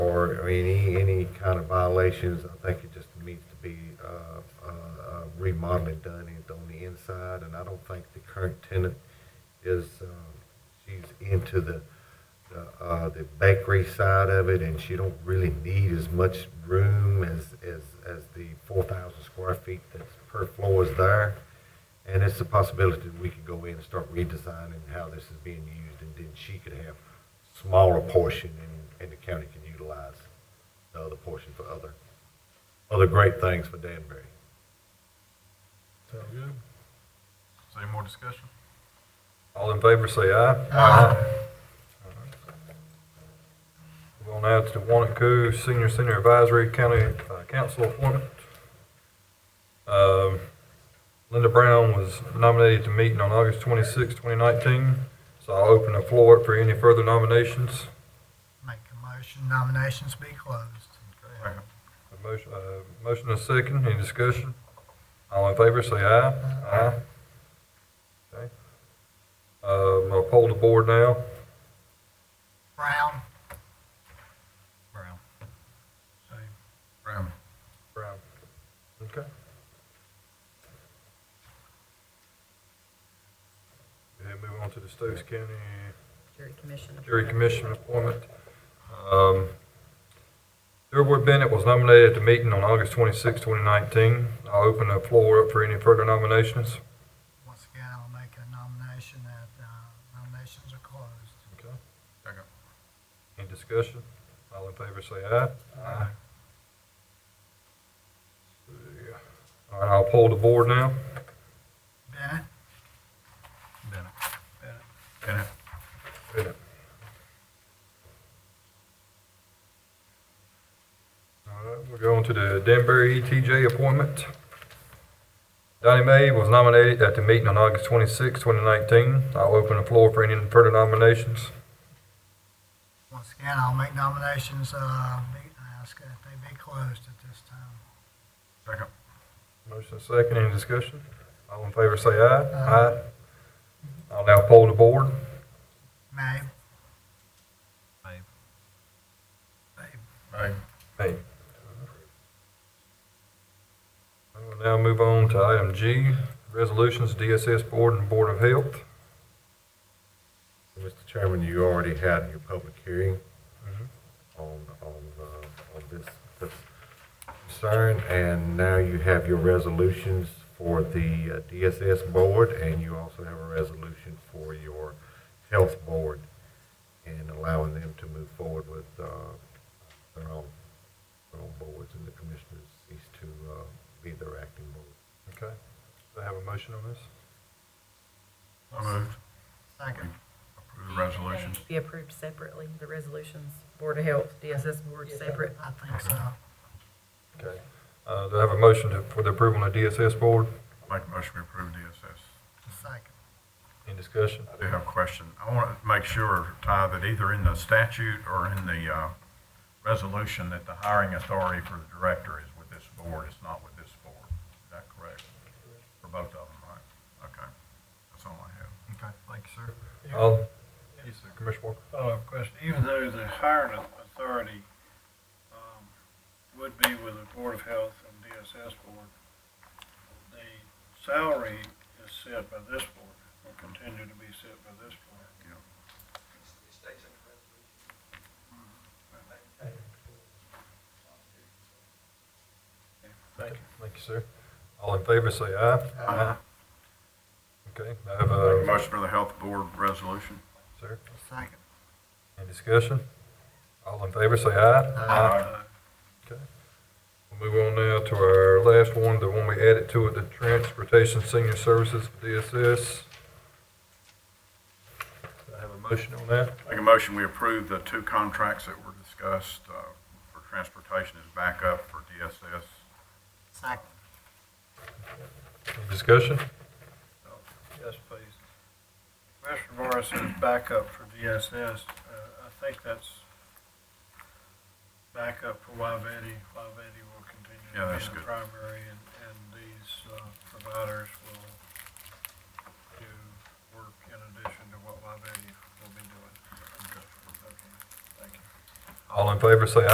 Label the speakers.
Speaker 1: I mean, any, any kind of violations, I think it just needs to be, uh, uh, remodeling done in- on the inside, and I don't think the current tenant is, um, she's into the, the, uh, the bakery side of it, and she don't really need as much room as, as, as the four thousand square feet that's per floor is there. And it's a possibility that we could go in and start redesigning how this is being used, and then she could have smaller portion, and, and the county can utilize the other portion for other, other great things for Danbury.
Speaker 2: Sound good?
Speaker 3: Is there any more discussion?
Speaker 4: All in favor, say aye.
Speaker 3: Aye.
Speaker 4: We're on now to the Wanacue Senior Center Advisory County uh, Council appointment. Um, Linda Brown was nominated to meeting on August 26, 2019, so I'll open the floor up for any further nominations.
Speaker 5: Make a motion, nominations be closed.
Speaker 3: Second.
Speaker 4: A Motion uh, motion and a second, any discussion? All in favor, say aye. Aye. Okay. Um, I'll poll the board now.
Speaker 5: Brown,
Speaker 3: Brown. Brown.
Speaker 4: Brown. Okay. And move on to the Stokes County
Speaker 6: Jury commission.
Speaker 4: Jury Commission appointment. Um, Durwood Bennett was nominated at the meeting on August 26, 2019. I'll open the floor up for any further nominations.
Speaker 5: once again, I'll make a nomination that uh, nominations are closed.
Speaker 4: Okay.
Speaker 3: Second.
Speaker 4: Any discussion? All in favor, say aye. Aye. All right, I'll poll the board now.
Speaker 5: Bennett,
Speaker 3: Bennett. Bennett.
Speaker 4: All right, we're going to the Danbury ETJ appointment. Donnie May was nominated at the meeting on August 26, 2019. I'll open the floor for any further nominations.
Speaker 5: once again, I'll make nominations, uh, be, ask that they be closed at this time.
Speaker 3: Second.
Speaker 4: Motion second, any discussion? All in favor, say aye.
Speaker 5: Aye.
Speaker 4: Aye. I'll now poll the board.
Speaker 5: May,
Speaker 3: Aye.
Speaker 4: Hey. I will now move on to item G, resolutions, DSS Board and Board of Health.
Speaker 1: Mr. Chairman, you already had your public hearing
Speaker 4: Mhm.
Speaker 1: on, on, uh, on this this concern, and now you have your resolutions for the uh, DSS board, and you also have a resolution for your health board, and allowing them to move forward with uh, their own, their own boards, and the commissioners cease to uh, be their acting board.
Speaker 4: Okay, do I have a motion on this?
Speaker 3: So moved.
Speaker 5: second.
Speaker 3: Approve the resolutions.
Speaker 6: Be approved separately, the resolutions, Board of Health, DSS Board separate.
Speaker 5: I think so.
Speaker 4: Okay. Uh, do I have a motion to- for the approval on the DSS Board?
Speaker 3: Make a motion to approve DSS.
Speaker 5: Second.
Speaker 4: Any discussion?
Speaker 3: I do have a question. I want to make sure, Ty, that either in the statute or in the, uh, resolution that the hiring authority for the director is with this board, it's not with this board. Is that correct? For both of them, right? Okay. That's all I have.
Speaker 7: Okay, thank you, sir.
Speaker 4: All, yes, sir, Commissioner Walker.
Speaker 7: Follow-up question, even though the hiring authority um, would be with the Board of Health and DSS Board, the salary is set by this board, will continue to be set by this board. Thank you.
Speaker 4: Thank you, sir. All in favor, say aye. Aye. Okay, do I have
Speaker 3: Make a
Speaker 4: a,
Speaker 3: motion for the health board resolution.
Speaker 4: sir,
Speaker 5: Second.
Speaker 4: any discussion? All in favor, say aye.
Speaker 3: Aye.
Speaker 4: Okay. We'll Move on now to our last one, the one we added to it, the Transportation Senior Services, DSS. Do I have a motion on that?
Speaker 3: Make a motion, we approve the two contracts that were discussed uh, for transportation as backup for DSS.
Speaker 5: Second.
Speaker 4: Any discussion?
Speaker 7: Oh, Yes, please. Commissioner Morris says backup for DSS. Uh, I think that's backup for Wyvetti. Wyvetti will continue
Speaker 3: Yeah,
Speaker 7: to
Speaker 3: that's
Speaker 7: be the
Speaker 3: good.
Speaker 7: primary, and, and these uh, providers will do work in addition to what Wyvetti will be doing. Okay, Thank you.
Speaker 4: All in favor, say